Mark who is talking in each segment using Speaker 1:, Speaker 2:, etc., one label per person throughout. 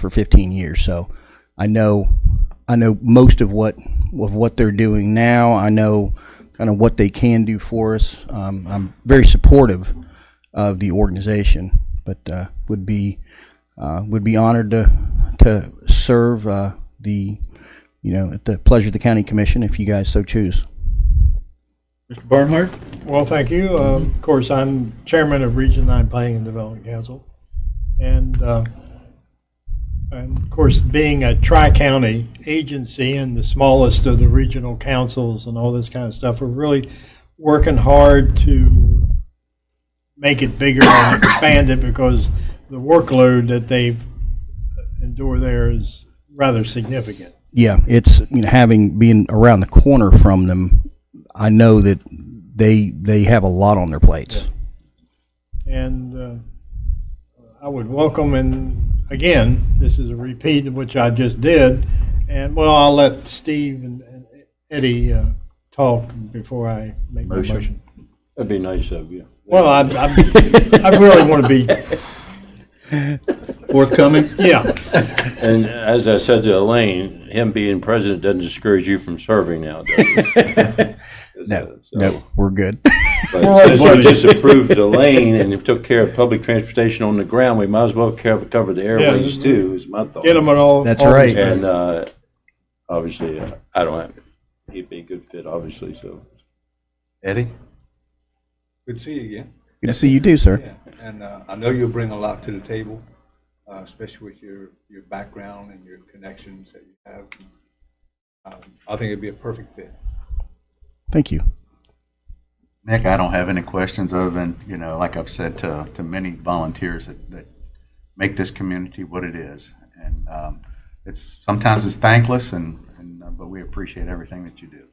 Speaker 1: for 15 years. So I know I know most of what of what they're doing now. I know kind of what they can do for us. Um, I'm very supportive of the organization, but uh, would be uh, would be honored to to serve uh, the you know at the pleasure of the county commission if you guys so choose.
Speaker 2: Mr. Barnhart?
Speaker 3: Well, thank you. Um, Of course, I'm chairman of Region 9 Planning and Development Council. And, uh, and of course, being a tri-county agency and the smallest of the regional councils and all this kind of stuff, we're really working hard to make it bigger and expand it because the workload that they endure there is rather significant.
Speaker 1: Yeah, it's you know having being around the corner from them, I know that they they have a lot on their plates.
Speaker 3: And uh, I would welcome, and again, this is a repeat of which I just did, and well, I'll let Steve and and Eddie uh, talk before I make my
Speaker 2: Motion.
Speaker 3: motion.
Speaker 4: That'd be nice of you.
Speaker 3: Well, I, I I really want to be,
Speaker 2: Forthcoming?
Speaker 3: yeah,
Speaker 4: And as I said to Elaine, him being president doesn't discourage you from serving now, does it?
Speaker 1: No,
Speaker 4: So,
Speaker 1: no, we're good.
Speaker 4: But since you just approved Elaine and you took care of public transportation on the ground, we might as well cover, cover the airways
Speaker 3: Yeah.
Speaker 4: too, is my thought.
Speaker 3: get them at all.
Speaker 1: That's
Speaker 3: all
Speaker 1: right.
Speaker 4: And, uh, obviously, uh, I don't have, he'd be a good fit, obviously, so. Eddie?
Speaker 5: Good to see you again.
Speaker 1: Good to see you do, sir.
Speaker 5: Yeah, and uh, I know you'll bring a lot to the table, uh, especially with your, your background and your connections that you have. Um, I think it'd be a perfect fit.
Speaker 1: Thank you.
Speaker 6: Nick, I don't have any questions other than, you know, like I've said to, to many volunteers that, that make this community what it is. And um, it's, sometimes it's thankless and, and, uh, but we appreciate everything that you do.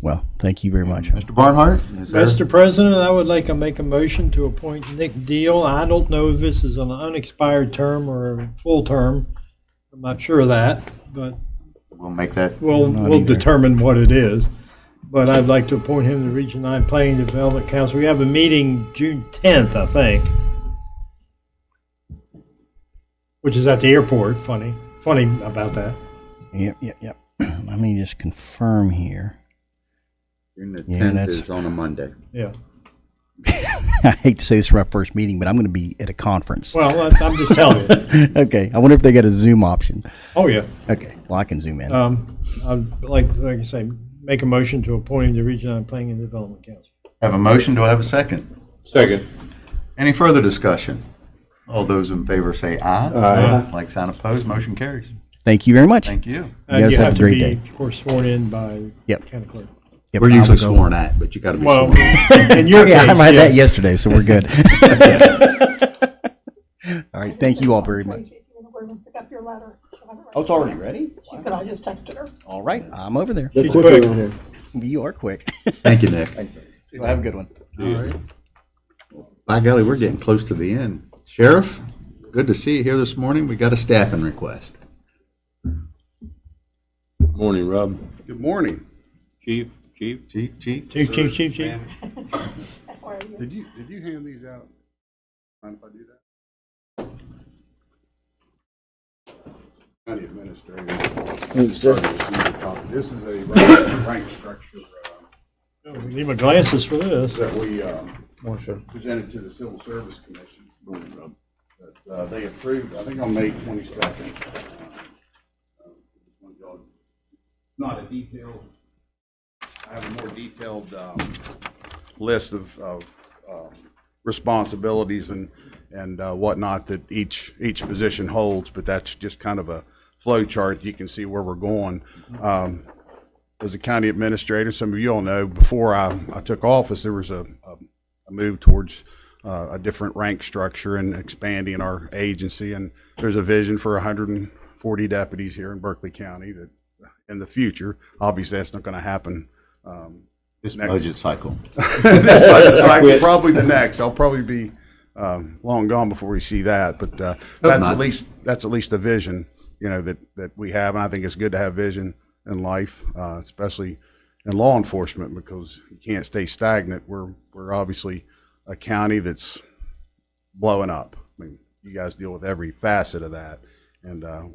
Speaker 1: Well, thank you very much.
Speaker 6: Mr. Barnhart? is there-
Speaker 3: Mr. President, I would like to make a motion to appoint Nick Deal. I don't know if this is an unexpired term or a full term. I'm not sure of that, but
Speaker 6: We'll make that,
Speaker 3: We'll,
Speaker 1: Not
Speaker 3: we'll
Speaker 1: either.
Speaker 3: determine what it is, but I'd like to appoint him to Region 9 Planning Development Council. We have a meeting June 10th, I think, which is at the airport, funny, funny about that.
Speaker 1: Yep, yep, yep. Let me just confirm here.
Speaker 6: June the
Speaker 1: Yeah,
Speaker 6: 10th
Speaker 1: that's-
Speaker 6: is on a Monday.
Speaker 3: Yeah,
Speaker 1: I hate to say this for my first meeting, but I'm going to be at a conference.
Speaker 3: well, I- I'm just telling you.
Speaker 1: okay. I wonder if they got a Zoom option.
Speaker 3: Oh, yeah.
Speaker 1: Okay. Well, I can zoom in.
Speaker 3: Um, I'd like, like I say, make a motion to appoint him to Region 9 Planning and Development Council.
Speaker 6: Have a motion, do I have a second?
Speaker 4: Second.
Speaker 6: Any further discussion? All those in favor say aye. Aye. Like sign opposed, motion carries.
Speaker 1: Thank you very much.
Speaker 6: Thank you.
Speaker 3: And
Speaker 1: guys
Speaker 3: you
Speaker 1: have a
Speaker 3: to
Speaker 1: great
Speaker 3: be,
Speaker 1: day.
Speaker 3: Of course, sworn in by
Speaker 1: Yep.
Speaker 3: county clerk.
Speaker 1: Yep,
Speaker 6: We're
Speaker 1: I will
Speaker 6: usually
Speaker 1: go.
Speaker 6: sworn at, but you got to be
Speaker 3: Well,
Speaker 6: sworn.
Speaker 3: in your
Speaker 1: Yeah, I
Speaker 3: case,
Speaker 1: had
Speaker 3: yeah.
Speaker 1: that yesterday, so we're good. all right. Thank you all very much.
Speaker 7: Tracy, if you wanna go over and pick up your letter. She'll have it
Speaker 1: Oh, it's already ready?
Speaker 7: right- She could, I just texted her.
Speaker 1: All right. I'm over there.
Speaker 2: They're quick around here.
Speaker 1: You are quick.
Speaker 6: Thank you, Nick.
Speaker 1: well, have a good one.
Speaker 6: By golly, we're getting close to the end. Sheriff, good to see you here this morning. We got a staffing request.
Speaker 4: Morning, Rob.
Speaker 6: Good morning.
Speaker 4: Chief, chief?
Speaker 6: Chief, chief.
Speaker 3: Chief, chief, chief, chief.
Speaker 7: Where are you?
Speaker 8: Did you, did you hand these out? Mind if I do that? County administrator. Sorry, this is a copy. This is a rank- rank structure uh,
Speaker 3: Need my glasses for this.
Speaker 8: that we um, presented to the Civil Service Commission. That uh, they approved, I think on May twenty-second. Not a detailed, I have a more detailed um, list of, of um, responsibilities and, and uh, whatnot that each, each position holds, but that's just kind of a flow chart. You can see where we're going. Um, As a county administrator, some of you all know, before I, I took office, there was a, a a move towards uh, a different rank structure and expanding our agency. And there's a vision for 140 deputies here in Berkeley County that, in the future, obviously that's not going to happen um,
Speaker 6: This budget cycle.
Speaker 8: this budget cycle, probably the next. I'll probably be um, long gone before we see that, but uh, that's
Speaker 6: not.
Speaker 8: at least that's at least the vision you know that that we have, and I think it's good to have vision in life, uh, especially in law enforcement, because you can't stay stagnant. We're we're obviously a county that's blowing up. I mean, you guys deal with every facet of that, And uh,